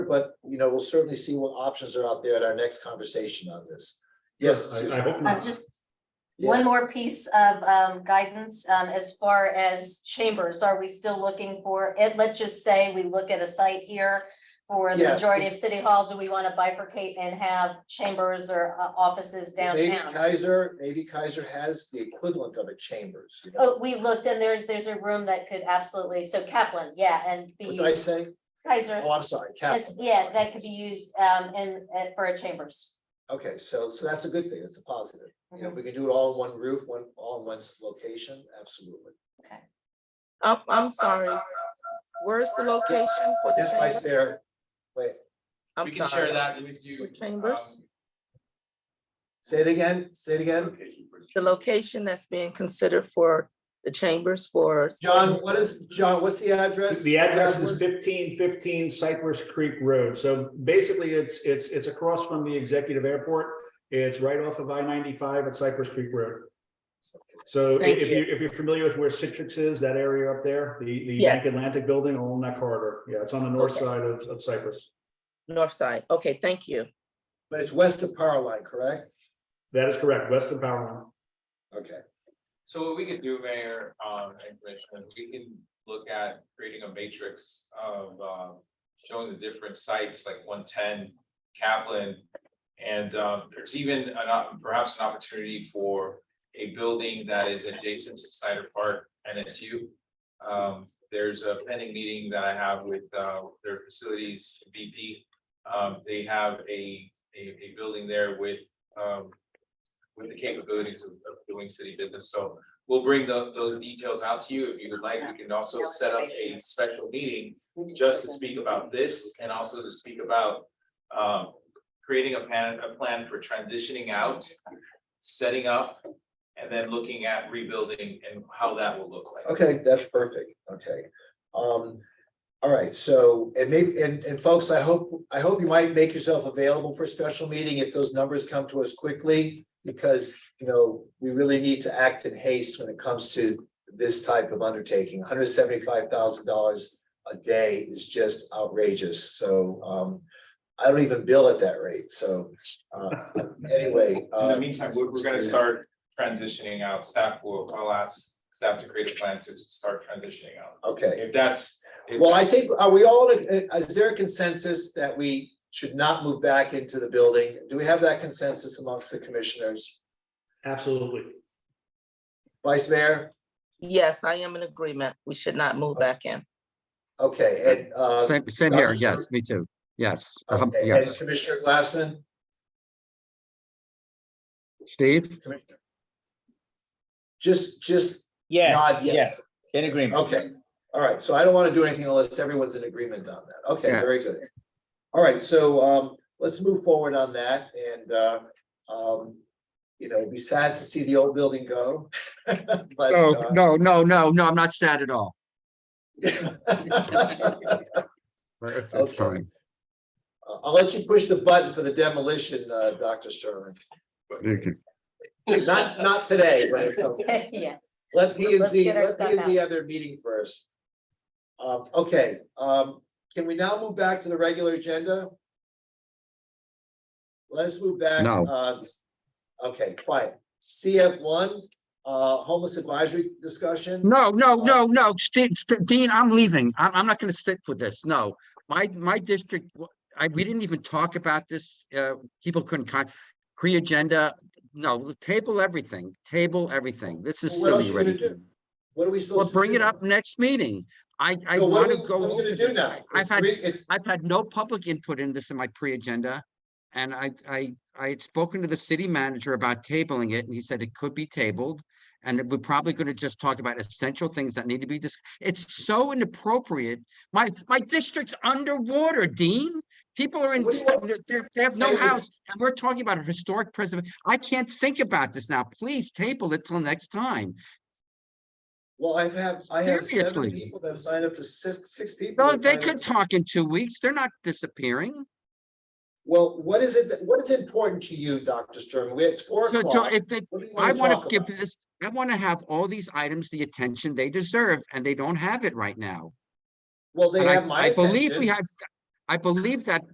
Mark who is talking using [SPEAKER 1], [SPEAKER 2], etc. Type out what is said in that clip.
[SPEAKER 1] but, you know, we'll certainly see what options are out there at our next conversation on this. Yes.
[SPEAKER 2] I- I
[SPEAKER 1] Susan?
[SPEAKER 2] hope
[SPEAKER 3] Uh,
[SPEAKER 2] not.
[SPEAKER 3] just
[SPEAKER 1] Yeah.
[SPEAKER 3] one more piece of um guidance um as far as chambers, are we still looking for, it, let's just say we look at a site here. For the
[SPEAKER 1] Yeah.
[SPEAKER 3] majority of city hall, do we want to bifurcate and have chambers or uh, offices
[SPEAKER 1] Maybe
[SPEAKER 3] downtown?
[SPEAKER 1] Kaiser, maybe Kaiser has the equivalent of a chambers, you know,
[SPEAKER 3] Oh, we looked and there's, there's a room that could absolutely, so Kaplan, yeah, and
[SPEAKER 1] what
[SPEAKER 3] be
[SPEAKER 1] did I say?
[SPEAKER 3] Kaiser,
[SPEAKER 1] Oh, I'm sorry, Kaplan.
[SPEAKER 3] that's-
[SPEAKER 1] I'm
[SPEAKER 3] yeah,
[SPEAKER 1] sorry.
[SPEAKER 3] that could be used um in uh, for a chambers.
[SPEAKER 1] Okay, so, so that's a good thing, it's a positive, you know, if we
[SPEAKER 3] Mm-hmm.
[SPEAKER 1] can do it all in one roof, one, all in one location, absolutely.
[SPEAKER 4] I'm, I'm sorry. Where's the location for the
[SPEAKER 1] Yes, Vice
[SPEAKER 4] chamber?
[SPEAKER 1] Mayor, wait,
[SPEAKER 4] I'm
[SPEAKER 5] We can share
[SPEAKER 4] sorry.
[SPEAKER 5] that with you.
[SPEAKER 4] With chambers?
[SPEAKER 5] um,
[SPEAKER 1] say it again, say it again,
[SPEAKER 5] location for-
[SPEAKER 4] The location that's being considered for the chambers for.
[SPEAKER 1] John, what is, John, what's the address?
[SPEAKER 2] The address is fifteen fifteen Cypress Creek Road. So basically, it's, it's, it's across from the executive airport. It's right off of I ninety-five at Cypress Creek Road. So i-
[SPEAKER 4] Thank
[SPEAKER 2] if
[SPEAKER 4] you.
[SPEAKER 2] you, if you're familiar with where Citrix is, that area up there, the, the
[SPEAKER 4] Yes.
[SPEAKER 2] Bank Atlantic Building along that corridor. Yeah, it's on the north
[SPEAKER 4] Okay.
[SPEAKER 2] side of, of Cypress.
[SPEAKER 4] North side. Okay, thank you.
[SPEAKER 1] But it's west of Power Line, correct?
[SPEAKER 2] That is correct, west of Power
[SPEAKER 1] Okay,
[SPEAKER 5] So what we could do, Mayor, um, and Richmond, we can look at creating a matrix of, um, showing the different sites like one ten Kaplan. And, um, there's even an, op- perhaps an opportunity for a building that is adjacent to Cider Park NSU. Um, there's a pending meeting that I have with, uh, their facilities VP. Um, they have a, a, a building there with, um, with the capabilities of, of doing city business. So we'll bring tho- those details out to you. If you would like, we can also set up a special meeting just to speak about this and also to speak about um creating a plan, a plan for transitioning out, setting up, and then looking at rebuilding and how that will look like.
[SPEAKER 1] okay, that's perfect, okay. Um, all right, so, and maybe, and, and folks, I hope, I hope you might make yourself available for a special meeting if those numbers come to us quickly. Because, you know, we really need to act in haste when it comes to this type of undertaking, hundred seventy-five thousand dollars a day is just outrageous, so, um. I don't even bill at that rate, so, uh, anyway.
[SPEAKER 5] In
[SPEAKER 1] uh,
[SPEAKER 5] the meantime, we're we're gonna start transitioning out. Staff will, I'll ask staff to create a plan to start transitioning out.
[SPEAKER 1] Okay.
[SPEAKER 5] If that's. if
[SPEAKER 1] Well, I
[SPEAKER 5] that's-
[SPEAKER 1] think, are we all, in a- is there a consensus that we should not move back into the building? Do we have that consensus amongst the commissioners?
[SPEAKER 2] Line. Absolutely.
[SPEAKER 1] Vice Mayor?
[SPEAKER 4] Yes, I am in agreement. We should not move back in.
[SPEAKER 1] Okay, and, uh,
[SPEAKER 6] Same, same here.
[SPEAKER 1] Dr.
[SPEAKER 6] Yes, me too. Yes, um,
[SPEAKER 1] okay, and
[SPEAKER 6] yes.
[SPEAKER 1] Commissioner Glassman?
[SPEAKER 6] Steve?
[SPEAKER 1] Commissioner? Just, just
[SPEAKER 7] Yes,
[SPEAKER 1] nod yes.
[SPEAKER 7] yes, in agreement.
[SPEAKER 1] Okay, all right, so I don't want to do anything unless everyone's in agreement on that. Okay, very
[SPEAKER 6] Yes.
[SPEAKER 1] good. All right, so um, let's move forward on that and uh, um, you know, it'd be sad to see the old building go. But
[SPEAKER 6] No,
[SPEAKER 1] uh,
[SPEAKER 6] no, no, no, no, I'm not sad at all.
[SPEAKER 1] I'll
[SPEAKER 6] Uh, It's
[SPEAKER 1] Okay.
[SPEAKER 6] fine.
[SPEAKER 1] I'll let you push the button for the demolition, uh, Dr. Sterling.
[SPEAKER 6] You can-
[SPEAKER 1] Not, not today, but it's okay.
[SPEAKER 3] Yeah.
[SPEAKER 1] Let P and
[SPEAKER 3] Let's
[SPEAKER 1] Z,
[SPEAKER 3] get our
[SPEAKER 1] let P
[SPEAKER 3] stuff
[SPEAKER 1] and Z have their meeting first. Um, okay, um, can we now move back to the regular agenda? Let us move back.
[SPEAKER 6] No.
[SPEAKER 1] uh, Okay, quiet. CF one, uh, homeless advisory discussion.
[SPEAKER 6] No, no, no, no, Ste- Ste- Dean, I'm leaving. I'm, I'm not gonna stick with this, no. My, my district, w- I, we didn't even talk about this, uh, people couldn't con, pre-agenda, no, table everything, table everything. This is
[SPEAKER 1] Well, What else you
[SPEAKER 6] silly
[SPEAKER 1] gonna
[SPEAKER 6] already.
[SPEAKER 1] do? What are we supposed
[SPEAKER 6] Well,
[SPEAKER 1] to?
[SPEAKER 6] bring
[SPEAKER 1] do
[SPEAKER 6] it
[SPEAKER 1] now?
[SPEAKER 6] up next meeting. I, I
[SPEAKER 1] No, what are
[SPEAKER 6] wanna
[SPEAKER 1] we- What
[SPEAKER 6] go.
[SPEAKER 1] are we
[SPEAKER 6] over
[SPEAKER 1] gonna do
[SPEAKER 6] this.
[SPEAKER 1] now?
[SPEAKER 6] I've
[SPEAKER 1] It's
[SPEAKER 6] had-
[SPEAKER 1] three- It's,
[SPEAKER 6] I've had no public input in this in my pre-agenda. And I, I, I had spoken to the city manager about tabling it and he said it could be tabled. And that we're probably gonna just talk about essential things that need to be dis- it's so inappropriate. My, my district's underwater, Dean. People are in,
[SPEAKER 1] What do you want-
[SPEAKER 6] they're- they're, they have no
[SPEAKER 1] Table it.
[SPEAKER 6] house and we're talking about a historic preservation. I can't think about this now. Please table it till next time.
[SPEAKER 1] well, I've had, I have seven
[SPEAKER 6] Seriously.
[SPEAKER 1] people that have signed up to six, six people.
[SPEAKER 6] No,
[SPEAKER 1] that
[SPEAKER 6] they
[SPEAKER 1] signed up
[SPEAKER 6] could
[SPEAKER 1] to-
[SPEAKER 6] talk in two weeks. They're not disappearing.
[SPEAKER 1] Well, what is it, that- what is important to you, Dr. Sturman? We, it's four
[SPEAKER 6] So, so
[SPEAKER 1] o'clock.
[SPEAKER 6] if they,
[SPEAKER 1] What do you
[SPEAKER 6] I want
[SPEAKER 1] talk
[SPEAKER 6] to give
[SPEAKER 1] about?
[SPEAKER 6] this, I want to have all these items the attention they deserve, and they don't have it right now.
[SPEAKER 1] Well, they
[SPEAKER 6] And I-
[SPEAKER 1] have my
[SPEAKER 6] I believe we
[SPEAKER 1] attention.
[SPEAKER 6] have, I believe that